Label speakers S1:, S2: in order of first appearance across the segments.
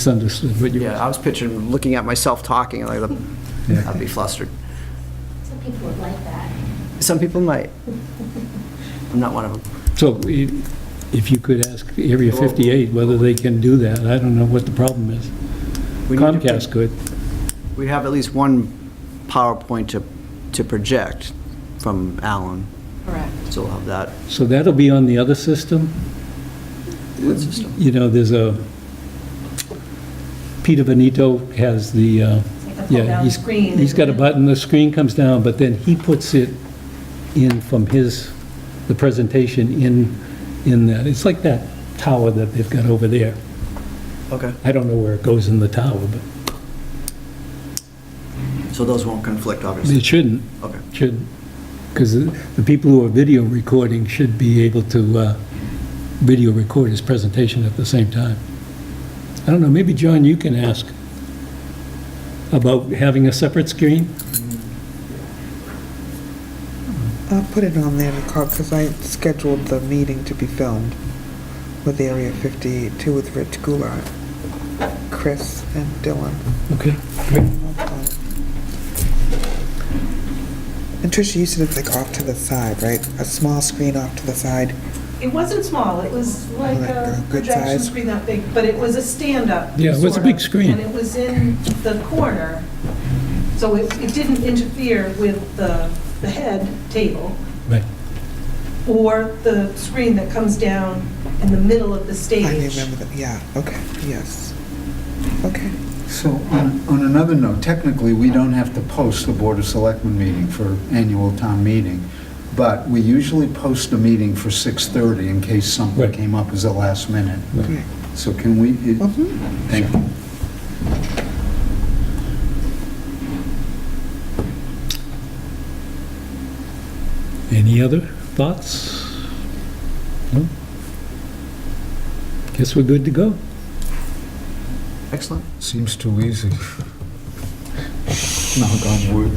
S1: misunderstood what you,
S2: Yeah, I was picturing, looking at myself talking, like,
S1: Yeah.
S2: I'd be flustered.
S3: Some people would like that.
S2: Some people might. I'm not one of them.
S1: so i- if you could ask Area 58 whether they can do that, I don't know what the problem is.
S2: We need to-
S1: Comcast could.
S2: We have at least one PowerPoint to, to project from Alan,
S3: Correct.
S2: so we'll have that.
S1: So that'll be on the other system?
S2: What system?
S1: You know, there's a, Peter Benito has the, uh,
S4: like a
S1: yeah,
S4: pull-down
S1: he's,
S4: screen.
S1: he's got a button, the screen comes down, but then he puts it in from his, the presentation in, in that. It's like that tower that they've got over there.
S2: Okay.
S1: I don't know where it goes in the tower, but
S2: So those won't conflict, obviously.
S1: it shouldn't.
S2: Okay.
S1: should, because the people who are video recording should be able to uh, video record his presentation at the same time. I don't know, maybe, John, you can ask about having a separate screen?
S5: I'll put it on there because I scheduled the meeting to be filmed with Area 58 too with Rich Goulart, Chris, and Dylan.
S1: Okay.
S5: And Tricia, you said it's like off to the side, right? A small screen off to the side.
S4: It wasn't small, it was like
S5: Like a
S4: a
S5: good
S4: projection
S5: size?
S4: screen that big, but it was a stand-up.
S1: Yeah, it was a
S4: sort
S1: big
S4: of,
S1: screen.
S4: And it was in the corner, so it it didn't interfere with the the head table
S1: Right.
S4: or the screen that comes down in the middle of the stage.
S5: I remember that, yeah, okay, yes. Okay,
S6: So on on another note, technically, we don't have to post the Board of Selectmen meeting for annual town meeting, but we usually post a meeting for 6:30 in case something
S1: Right.
S6: came up as a last minute.
S5: yeah.
S6: So can we, it-
S5: Mhm.
S6: thank you.
S1: Any other thoughts? No? Guess we're good to go.
S2: Excellent.
S6: Seems too easy. Knock on wood.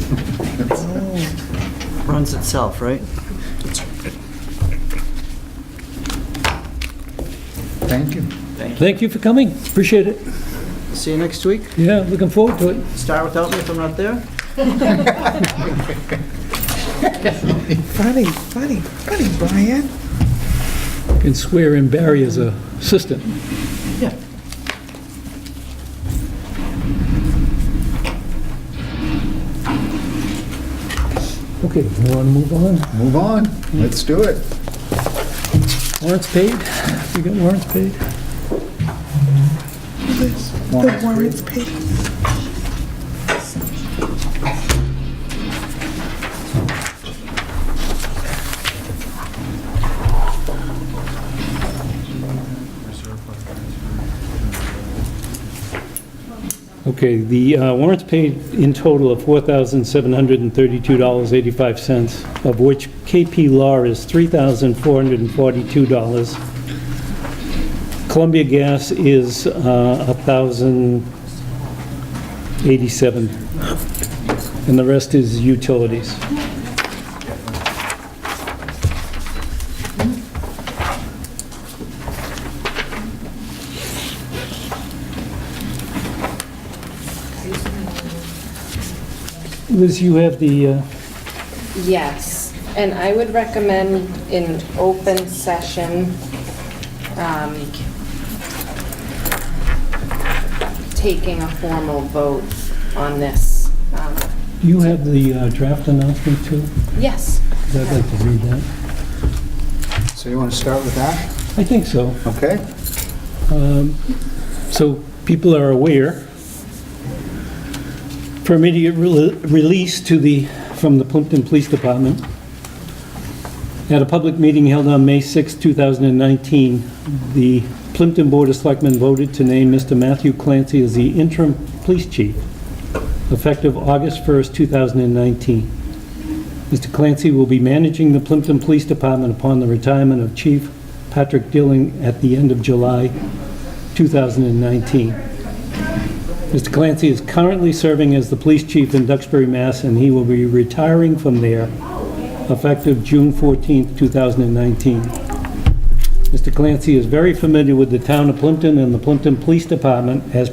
S2: Runs itself, right?
S6: Thank you.
S1: Thank you for coming, appreciate it.
S2: See you next week.
S1: Yeah, looking forward to it.
S2: Start without me if I'm not there.
S5: Funny, funny, funny, Brian.
S1: Can swear in Barry as a assistant.
S2: Yeah.
S1: Okay, you want to move on?
S6: Move on, let's do it.
S1: Warrants paid? We got warrants paid?
S5: The warrants paid.
S1: Okay, the uh, warrants paid in total of $4,732.85, of which KP Law is $3,442. Columbia Gas is uh, $1,087. And the rest is utilities. Liz, you have the, uh,
S7: Yes, and I would recommend in open session, um, taking a formal vote on this. Um,
S1: do you have the uh, draft announcement too?
S7: Yes,
S1: 'Cause I'd like to read that.
S6: So you want to start with that?
S1: I think so.
S6: Okay.
S1: Um, So people are aware, for immediate rel- release to the, from the Plimpton Police Department, at a public meeting held on May 6, 2019, the Plimpton Board of Selectmen voted to name Mr. Matthew Clancy as the interim police chief, effective August 1st, 2019. Mr. Clancy will be managing the Plimpton Police Department upon the retirement of Chief Patrick Dilling at the end of July 2019. Mr. Clancy is currently serving as the police chief in Duxbury, Mass., and he will be retiring from there effective June 14, 2019. Mr. Clancy is very familiar with the town of Plimpton and the Plimpton Police Department as